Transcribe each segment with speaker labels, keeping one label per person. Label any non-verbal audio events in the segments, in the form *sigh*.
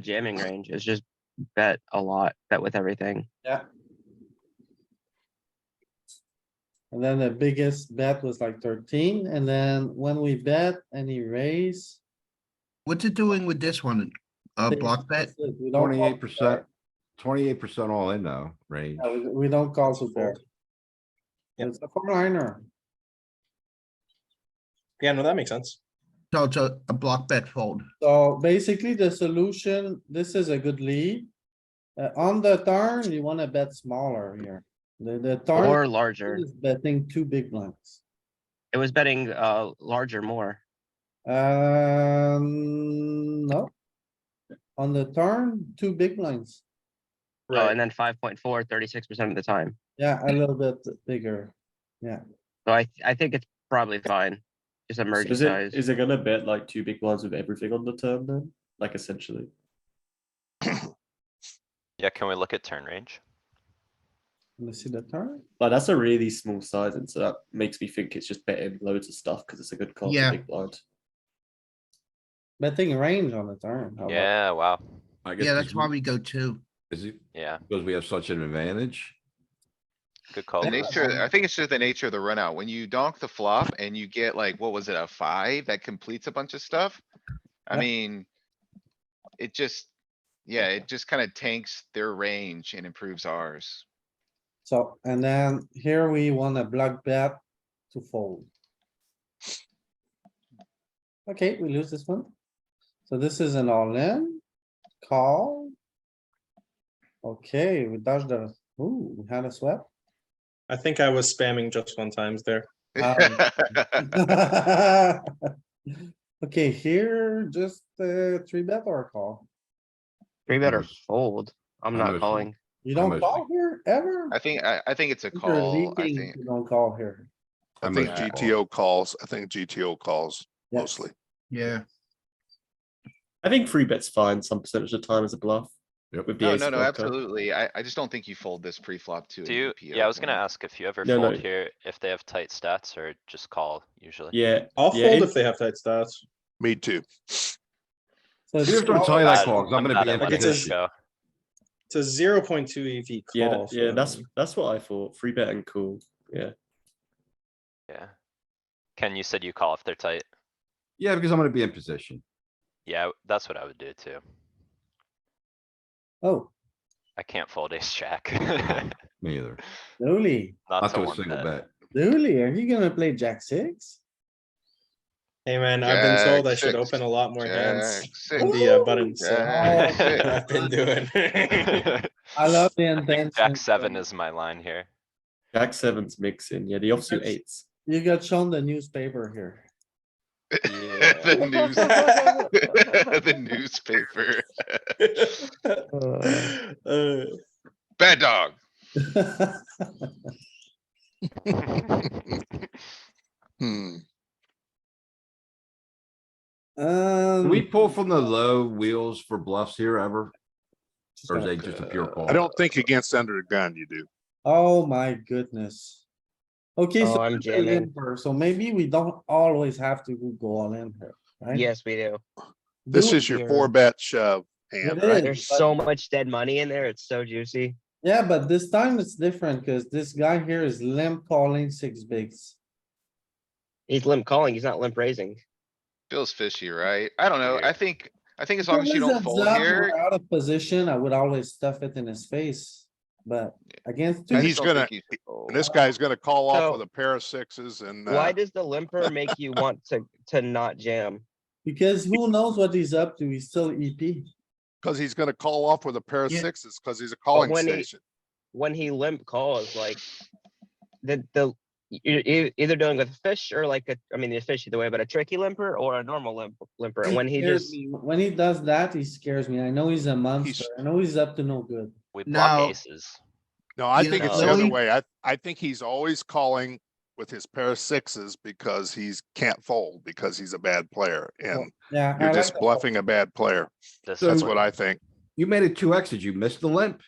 Speaker 1: jamming range is just bet a lot, bet with everything.
Speaker 2: And then the biggest bet was like thirteen, and then when we bet any raise.
Speaker 3: What's it doing with this one? Uh, block bet?
Speaker 4: Twenty-eight percent, twenty-eight percent all in now, range.
Speaker 2: We don't call support. It's a four liner.
Speaker 5: Yeah, no, that makes sense.
Speaker 3: No, it's a, a block bet fold.
Speaker 2: So basically, the solution, this is a good lead. Uh, on the turn, you wanna bet smaller here. The, the
Speaker 1: Or
Speaker 2: turn
Speaker 1: larger.
Speaker 2: is betting two big blinds.
Speaker 1: It was betting uh larger more.
Speaker 2: Um, no. On the turn, two big blinds.
Speaker 1: Oh, and then 5.4, 36% of the time.
Speaker 2: Yeah, a little bit bigger.
Speaker 1: So I I think it's probably fine. Just a
Speaker 6: So
Speaker 1: merge
Speaker 6: is
Speaker 1: size.
Speaker 6: it is it gonna bet like two big blinds with everything on the turn then? Like essentially.
Speaker 7: Yeah, can we look at turn range?
Speaker 2: Let me see the turn.
Speaker 6: Like that's a really small size, and so that makes me think it's just betting loads of stuff because it's a good call
Speaker 3: Yeah.
Speaker 6: for big blind.
Speaker 2: Betting range on the turn. how about-
Speaker 7: Yeah, wow.
Speaker 4: I guess
Speaker 3: Yeah,
Speaker 4: this
Speaker 3: that's why
Speaker 4: one-
Speaker 3: we go two.
Speaker 4: Is it
Speaker 7: Yeah,
Speaker 4: because we have such an advantage?
Speaker 7: good call.
Speaker 8: The
Speaker 7: Louis.
Speaker 8: nature, I think it's just the nature of the run out. When you donk the flop and you get like, what was it, a five that completes a bunch of stuff? I
Speaker 2: Yep.
Speaker 8: mean. It just, yeah, it just kinda tanks their range and improves ours.
Speaker 2: So, and then here we want a block bet to fold. Okay, we lose this one. So this is an all-in call. Okay, we dodged the, ooh, we had a sweat.
Speaker 5: I think I was spamming just one times there.
Speaker 2: Um, *laughs* Okay, here, just uh three bet or a call.
Speaker 1: Three
Speaker 6: Hmm.
Speaker 1: better
Speaker 4: Almost-
Speaker 1: fold. I'm not
Speaker 4: almost-
Speaker 1: calling.
Speaker 2: You don't
Speaker 4: Almost.
Speaker 2: call here ever?
Speaker 8: *laughs* I think, I, I think it's a
Speaker 2: You're
Speaker 8: call, I
Speaker 2: leaking
Speaker 8: think.
Speaker 2: if you Don't call here.
Speaker 9: I
Speaker 4: I'm
Speaker 9: think
Speaker 4: a-
Speaker 9: GTO calls, I think GTO calls
Speaker 2: Yeah.
Speaker 9: mostly.
Speaker 3: Yeah.
Speaker 6: I think three bets fine some percentage of the time as a bluff.
Speaker 4: Yep.
Speaker 6: With the
Speaker 8: No,
Speaker 6: ace
Speaker 8: no, no,
Speaker 6: blocker.
Speaker 8: absolutely. I, I just don't think you fold this pre-flop to.
Speaker 7: Do you, yeah, I was gonna ask if you ever
Speaker 6: No, no.
Speaker 7: fold here, if they have tight stats or just call usually.
Speaker 6: Yeah,
Speaker 5: I'll
Speaker 6: Yeah,
Speaker 5: fold
Speaker 6: it-
Speaker 5: if they have tight stats.
Speaker 9: Me too.
Speaker 2: So
Speaker 4: You
Speaker 2: it's
Speaker 4: have to
Speaker 2: all-
Speaker 4: tell you that
Speaker 7: Bad-
Speaker 4: call, 'cause I'm gonna
Speaker 7: bad
Speaker 4: be
Speaker 7: at
Speaker 4: in
Speaker 5: letting
Speaker 7: letting
Speaker 5: this
Speaker 4: position.
Speaker 7: it go.
Speaker 5: It's a zero point two EV
Speaker 6: yeah,
Speaker 5: call.
Speaker 6: that- yeah.
Speaker 5: so-
Speaker 6: That's that's what I thought. Three bet and cool. Yeah,
Speaker 7: Yeah. Ken, you said you call if they're tight.
Speaker 4: Yeah, because I'm gonna be in position.
Speaker 7: Yeah, that's what I would do too.
Speaker 2: Oh,
Speaker 7: I can't fold ace jack. *laughs*
Speaker 4: Me either.
Speaker 2: Dooley,
Speaker 7: Not
Speaker 4: Not
Speaker 7: to
Speaker 4: to a
Speaker 7: one
Speaker 4: single
Speaker 7: bet.
Speaker 4: bet.
Speaker 2: Dooley, are you gonna play jack six?
Speaker 5: Hey man, I've been told I should
Speaker 8: Jack six,
Speaker 5: open a lot more hands
Speaker 8: Jack
Speaker 5: in
Speaker 8: six,
Speaker 5: the uh, button. So
Speaker 8: Jack
Speaker 5: *laughs*
Speaker 7: six.
Speaker 5: I've been
Speaker 7: *laughs*
Speaker 5: doing.
Speaker 9: *laughs*
Speaker 2: I love the
Speaker 7: I
Speaker 2: intention.
Speaker 7: think jack seven is my line here.
Speaker 6: jack sevens mixing. Yeah, the offsuit
Speaker 2: That's-
Speaker 6: eights.
Speaker 2: You got shown the newspaper here.
Speaker 8: The news, *laughs* the newspaper.
Speaker 5: *laughs*
Speaker 6: *laughs*
Speaker 5: Uh,
Speaker 4: *laughs*
Speaker 8: Bad dog. *laughs*
Speaker 9: Hmm.
Speaker 4: Can
Speaker 2: *laughs* Um.
Speaker 4: we pull from the low wheels for bluffs here ever? Or is it just a pure call?
Speaker 9: I don't think against under the gun you do.
Speaker 2: Oh my goodness. Okay,
Speaker 1: Oh,
Speaker 2: so,
Speaker 1: I'm
Speaker 2: we're in
Speaker 1: jamming.
Speaker 2: first, so maybe we don't always have to go all in here,
Speaker 1: *laughs*
Speaker 2: right?
Speaker 1: Yes, we do.
Speaker 9: This
Speaker 2: Do-
Speaker 9: is your
Speaker 1: here.
Speaker 9: four bet shove hand,
Speaker 2: It
Speaker 9: right?
Speaker 2: is,
Speaker 1: There's
Speaker 2: but-
Speaker 1: so much dead money in there. It's so juicy.
Speaker 2: Yeah, but this time it's different because this guy here is limp calling six bigs.
Speaker 1: He's limp calling. He's not limp raising.
Speaker 8: Feels fishy, right? I don't know. I
Speaker 7: Weird.
Speaker 8: think, I think as long as you
Speaker 2: Because
Speaker 8: don't
Speaker 2: heads
Speaker 8: fold
Speaker 2: up,
Speaker 8: here,
Speaker 2: we're Out of position, I would always stuff it in his face, but against. two-
Speaker 8: I
Speaker 9: And
Speaker 8: just
Speaker 9: he's
Speaker 8: don't think
Speaker 9: gonna-
Speaker 8: you should fold.
Speaker 9: And this guy's gonna call
Speaker 1: So-
Speaker 9: off with a pair of sixes and,
Speaker 1: Why
Speaker 9: uh,
Speaker 1: does the limper make you want to to not jam?
Speaker 2: Because who knows what he's up to? He's still E EP.
Speaker 9: cause he's gonna call off with a pair of
Speaker 3: Yeah.
Speaker 9: sixes, cause he's a calling
Speaker 1: when he-
Speaker 9: station.
Speaker 1: when he limp calls, like the the you're e- either dealing with a fish or like a I mean the fish either way, but a tricky limper or a normal limp limper. And when he
Speaker 2: scares
Speaker 1: just
Speaker 2: me. When he does that, he scares me. I know he's a monster. I know he's up to no good.
Speaker 7: We block
Speaker 3: Now-
Speaker 7: aces.
Speaker 9: No, I
Speaker 3: You
Speaker 9: think it's
Speaker 1: know,
Speaker 9: the other
Speaker 3: Louis-
Speaker 9: way. I, I think he's always calling with his pair of sixes because he's can't fold, because he's a bad player and
Speaker 2: Yeah. I
Speaker 9: you're
Speaker 2: like
Speaker 9: just
Speaker 2: that.
Speaker 9: bluffing a bad player.
Speaker 7: This
Speaker 9: That's
Speaker 7: is-
Speaker 9: what I think.
Speaker 4: You made it two X. Did you miss the limp?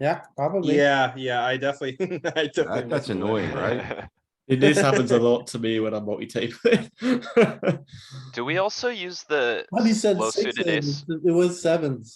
Speaker 2: Yeah, probably.
Speaker 5: yeah, yeah, I definitely. *laughs* I definitely
Speaker 4: That- That's
Speaker 7: *laughs*
Speaker 5: missed one.
Speaker 4: annoying, right?
Speaker 6: This happens a lot to me when I'm multi-tabling. *laughs*
Speaker 7: Do we also use the
Speaker 2: But he said
Speaker 7: low suited ace?
Speaker 2: sixes, it was sevens.